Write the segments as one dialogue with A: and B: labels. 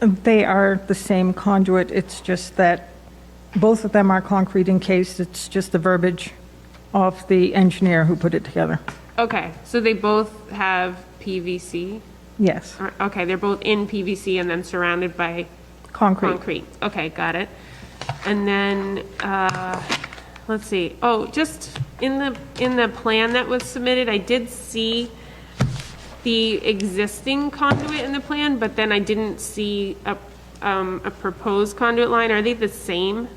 A: They are the same conduit, it's just that both of them are concrete encased, it's just the verbiage of the engineer who put it together.
B: Okay, so they both have PVC?
A: Yes,
B: Or- Okay, they're both in PVC and then surrounded by
A: concrete.
B: concrete. Okay, got it. And then, uh, let's see, oh, just in the, in the plan that was submitted, I did see the existing conduit in the plan, but then I didn't see a, um, a proposed conduit line. Are they the same?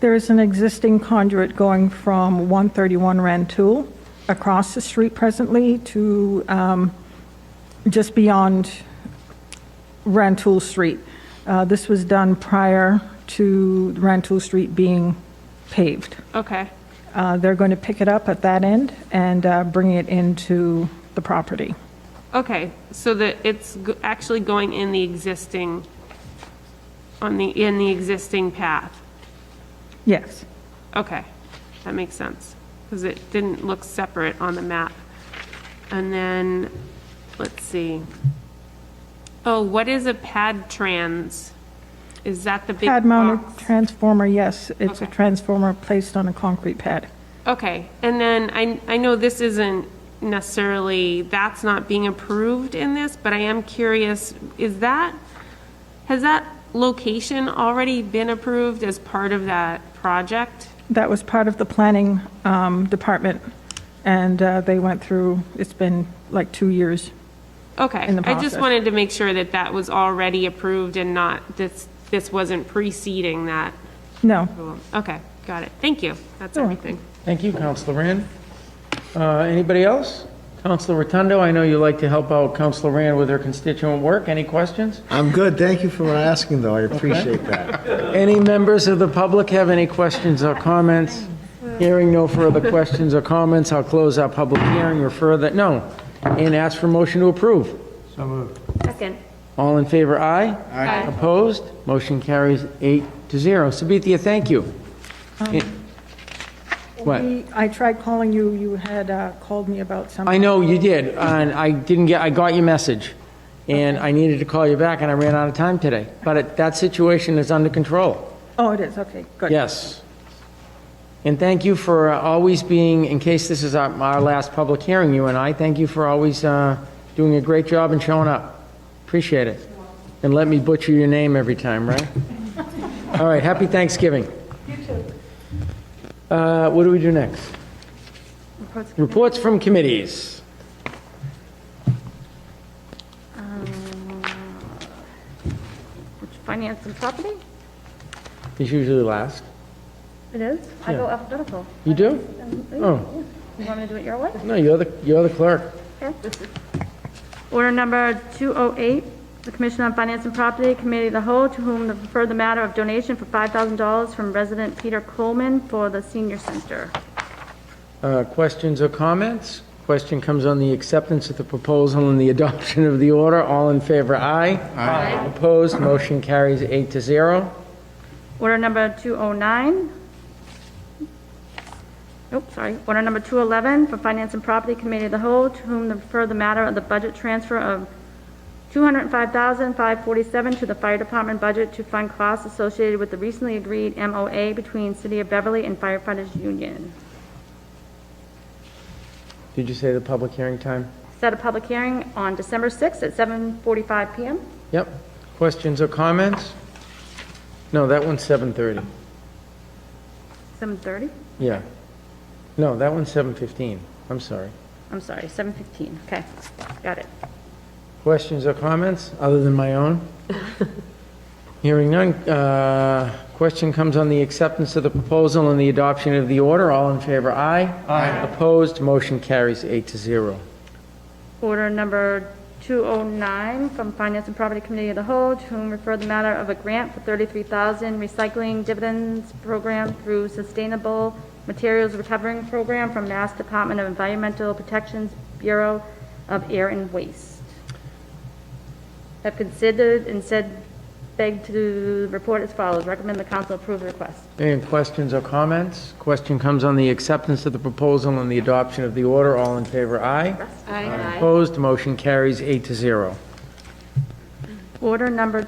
A: There is an existing conduit going from 131 Rantoul across the street presently to um, just beyond Rantoul Street. Uh, This was done prior to Rantoul Street being paved.
B: Okay,
A: Uh, They're going to pick it up at that end and uh, bring it into the property.
B: okay, so that it's go- actually going in the existing, on the, in the existing path?
A: Yes.
B: Okay, that makes sense, because it didn't look separate on the map. And then, let's see. Oh, what is a pad trans? Is that the big
A: Pad mounted
B: box?
A: transformer, yes. It's a
B: Okay.
A: transformer placed on a concrete pad.
B: Okay, and then I, I know this isn't necessarily, that's not being approved in this, but I am curious, is that, has that location already been approved as part of that project?
A: That was part of the planning um, department, and uh, they went through, it's been like two years.
B: Okay,
A: in the
B: I just
A: process.
B: wanted to make sure that that was already approved and not, this, this wasn't preceding that.
A: No,
B: Okay, got it. Thank you. That's
A: You're
B: everything.
C: Thank you, Counselor Rand. Uh, Anybody else? Counselor Rotundo, I know you like to help out Counselor Rand with her constituent work. Any questions?
D: I'm good, thank you for asking, though, I appreciate that.
C: Any members of the public have any questions or comments? Hearing no further questions or comments, I'll close our public hearing, refer that, no, and ask for motion to approve.
B: Second.
C: All in favor, aye? Aye. Opposed? Motion carries eight to zero. Sabithia, thank you. What?
A: We- I tried calling you, you had uh, called me about something.
C: I know you did, and I didn't get, I got your message, and I needed to call you back, and I ran out of time today. But it- that situation is under control,
A: Oh, it is, okay, good.
C: yes. And thank you for uh, always being, in case this is our, our last public hearing, you and I, thank you for always uh, doing a great job and showing up. Appreciate it. And let me butcher your name every time, right? All right, happy Thanksgiving. Uh, What do we do next? Reports from committees.
E: Finance and property?
C: It's usually last.
E: It is. Um, I go
C: Yeah.
E: alphabetical.
C: You do? Oh,
E: You want me to do it your way?
C: no, you're the, you're the clerk.
E: Order number 208, the Commission on Finance and Property Committee of the Whole, to whom to refer the matter of donation for $5,000 from resident Peter Coleman for the senior center.
C: Uh, Questions or comments? Question comes on the acceptance of the proposal and the adoption of the order. All in favor, aye. Aye. Opposed, motion carries eight to zero.
E: Order number 209. Nope, sorry. Order number 211 for Finance and Property Committee of the Whole, to whom to refer the matter of the budget transfer of 205547 to the Fire Department budget to fund costs associated with the recently agreed MOA between City of Beverly and Firefighters Union.
C: Did you say the public hearing time?
E: Set a public hearing on December 6th at 7:45 PM.
C: Yep. Questions or comments? No, that one's 7:30.
E: 7:30?
C: Yeah. No, that one's 7:15. I'm sorry.
E: I'm sorry, 7:15. Okay, got it.
C: Questions or comments, other than my own? Hearing none, uh, question comes on the acceptance of the proposal and the adoption of the order. All in favor, aye. Aye. Opposed, motion carries eight to zero.
E: Order number 209 from Finance and Property Committee of the Whole, to whom refer the matter of a grant for 33000 recycling dividends program through Sustainable Materials Recovering Program from Mass Department of Environmental Protections Bureau of Air and Waste. Have considered and said, begged to report as follows. Recommend the council approve the request.
C: Any questions or comments? Question comes on the acceptance of the proposal and the adoption of the order. All in favor, aye. Aye. Opposed, motion carries eight to zero.
E: Order number